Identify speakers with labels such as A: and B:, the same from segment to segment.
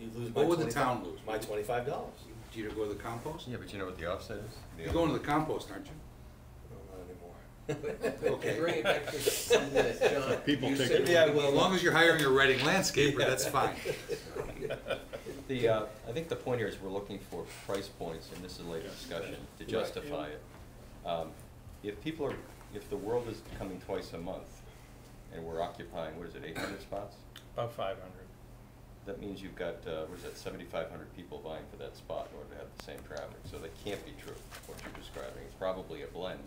A: you'd lose my
B: What would the
A: 25
B: town lose?
A: My twenty-five dollars.
B: Do you go to the compost?
C: Yeah, but you know what the offset is? The
B: You're going to the compost, aren't you?
A: No, not
B: Okay.
D: Bring it back to something that John.
E: People
D: you
E: take
D: said
E: it.
D: we
A: Yeah,
D: would
A: well,
B: As long as you're hiring a Reading landscaper, that's fine.
C: The, uh, I think the point here is we're looking for price points, and this is later discussion, to justify it. Um, If people are, if the world is coming twice a month, and we're occupying, what is it, eight hundred spots?
F: About five hundred.
C: That means you've got, uh, what is that, seventy-five hundred people vying for that spot in order to have the same traffic, so that can't be true, what you're describing, it's probably a blend.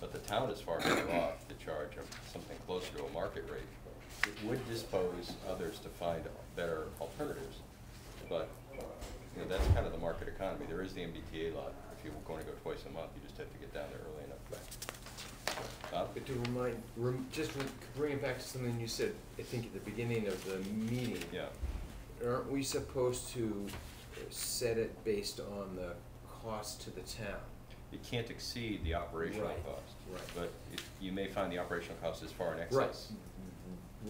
C: But the town is far better off to charge a- something closer to a market rate. It would dispose others to find better alternatives, but, you know, that's kind of the market economy, there is the MBTA lot, if you were gonna go twice a month, you just have to get down there early enough, but. Bob?
D: But to remind, rem, just re- bring it back to something you said, I think at the beginning of the meeting.
C: Yeah,
D: Aren't we supposed to set it based on the cost to the town?
C: it can't exceed the operational
D: Right,
C: cost.
D: right.
C: But it- you may find the operational cost is far in excess.
D: Mm-hmm. Right.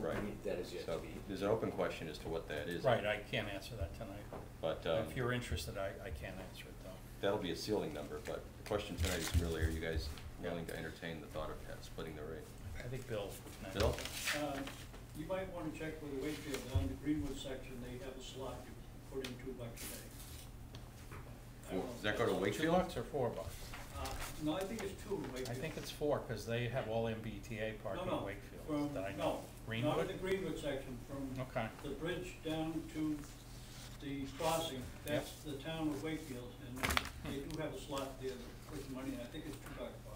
C: Right.
D: Mm-hmm. That is yet to
C: So
D: be.
C: there's an open question as to what that is.
F: Right, I can't answer that tonight.
C: But
F: If
C: um,
F: you're interested, I, I can't answer it though.
C: that'll be a ceiling number, but the question tonight is really, are you guys willing to entertain the thought of ha- splitting the rate?
F: I think Bill.
C: Bill?
G: Uh, You might want to check with the Wakefield, on the Greenwood section, they have a slot, you put in two bucks a day. I don't
C: Four-
G: know.
C: Does that go to
F: Two
C: Wakefield?
F: bucks or four bucks?
G: Uh, No, I think it's two in Wakefield.
F: I think it's four, cause they have all MBTA parking in
G: No, no,
F: Wakefield
G: from,
F: that I
G: no,
F: know.
G: not in
F: Greenwood?
G: the Greenwood section, from
F: Okay,
G: the bridge down to the crossing, that's the town of Wakefield, and then they do have a slot there that puts money, in. I think it's two bucks, Bob.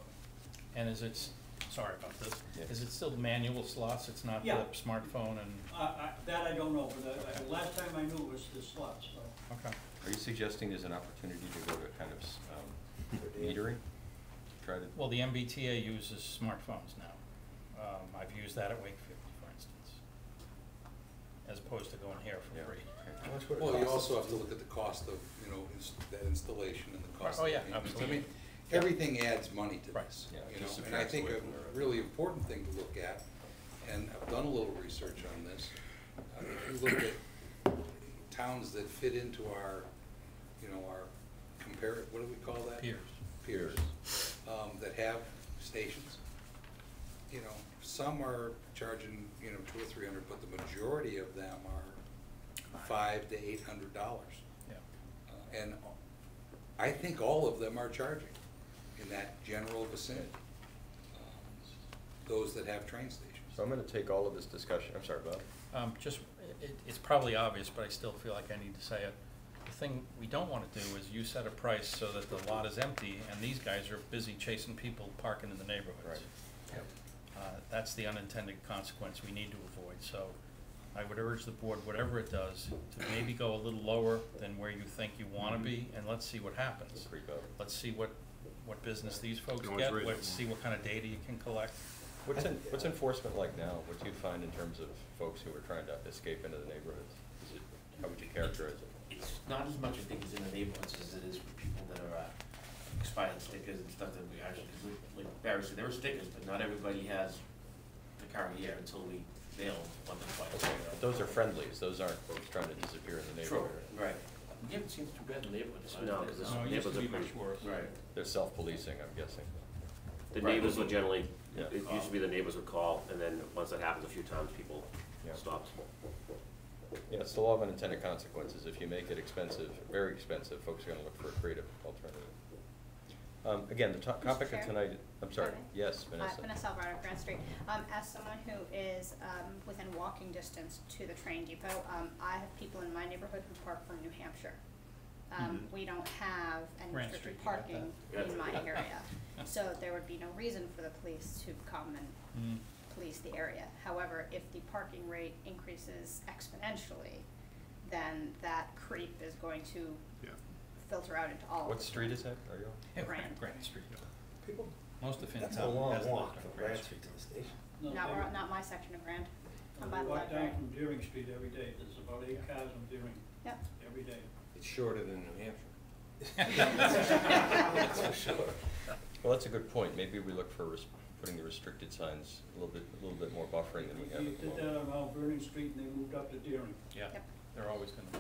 F: and is it, s- sorry about this,
C: Yeah.
F: is it still manual slots? It's not the
G: Yeah.
F: smartphone and,
G: I- I- That I don't know, but I- I- last time I knew was the slot, so.
F: okay.
C: Are you suggesting there's an opportunity to go to kind of s- um, metering? Try to,
F: Well, the MBTA uses smartphones now. Um, I've used that at Wakefield, for instance, as opposed to going here
C: yeah.
F: for free.
C: okay.
B: Well, you also have to look at the cost of, you know, ins- that installation and the cost.
F: Oh,
B: of
F: yeah,
B: maintenance. I
F: absolutely.
B: mean, everything adds money to
F: Right.
B: this,
C: Yeah,
B: you
C: it just
B: know, and I
C: subtracts
B: think
C: away
B: a
C: from the rest.
B: really important thing to look at, and I've done a little research on this. uh, If you look at towns that fit into our, you know, our compare, what do we call that?
F: Peers.
B: Peers, um, that have stations, you know, some are charging, you know, two or three hundred, but the majority of them are five to eight hundred dollars.
F: Yeah.
B: Uh, And I think all of them are charging in that general vicinity. um, Those that have train
C: So
B: stations.
C: I'm gonna take all of this discussion, I'm sorry, Bob.
F: Um, just, it, it's probably obvious, but I still feel like I need to say it. The thing we don't wanna do is you set a price so that the lot is empty and these guys are busy chasing people parking in the neighborhoods.
C: Right. Yep.
F: Uh, that's the unintended consequence we need to avoid, so I would urge the board, whatever it does, to maybe go a little lower than where you think you wanna be, and let's see what happens.
C: Creep out.
F: Let's see what, what business these folks
E: Can always
F: get,
E: raise it
F: let's
E: more.
F: see what kind of data you can collect.
C: What's en- what's enforcement like now? What do you find in terms of folks who are trying to escape into the neighborhoods? Is it, how would you characterize it?
H: it's not as much, I think, as in the neighborhoods as it is for people that are, uh, expired stickers and stuff that we actually, 'cause we- like Barry said, there were stickers, but not everybody has the car here until we nail one or twice.
C: Okay, but Those are friendlies, those aren't folks trying to disappear in the
H: True,
C: neighborhood.
H: right. We haven't seen too bad in the neighborhood. so I
D: No,
H: think
D: 'cause
H: that's-
D: it's-
F: No, it used to be much worse.
H: Right.
C: They're self-policing, I'm guessing.
I: The
H: Right.
I: neighbors would generally,
C: Yeah.
I: it used to be the neighbors would call, and then once that happens a few times, people
C: Yeah.
I: stopped.
C: Yeah, it's the law of unintended consequences. If you make it expensive, very expensive, folks are gonna look for a creative alternative. Um, again, the to-
J: Mr.
C: topic of
J: Chair?
C: tonight, I'm sorry,
J: Okay.
C: yes,
J: Uh,
C: Vanessa.
J: Vanessa Alvarado, Grant Street. Um, as someone who is, um, within walking distance to the train depot, um, I have people in my neighborhood who park from New Hampshire. Um,
C: Mhm.
J: we don't have any
F: Grant
J: restricted
F: Street, you
J: parking
I: got that.
J: in my
I: Yeah.
J: area. So there would be no reason for the police to come
F: Mm.
J: and police the area. However, if the parking rate increases exponentially, then that creep is going to
E: Yeah.
J: filter out into all of
C: What
J: the
C: street is that? Are you on?
J: Grant.
F: Grant Street.
A: People,
F: Most of FinTech has
A: that's
F: the
A: a long walk
F: on
A: from
F: Grant
A: Grand Street to the station.
G: No,
J: Not,
G: they-
J: where- not my section of Grant. I'm Oh, by
G: I
J: the
G: walk
J: library.
G: down from Deering Street every day, there's about eight cars on Deering
J: Yep.
G: every day.
D: It's shorter than New Hampshire.
B: That's for sure.
C: Well, that's a good point. Maybe we look for res- putting the restricted signs a little bit, a little bit more buffering than we have
G: You uh,
C: at the
G: did
C: moment.
G: that on Mount Vernon Street and they moved up to Deering.
F: Yeah,
J: Yep.
F: they're always gonna be.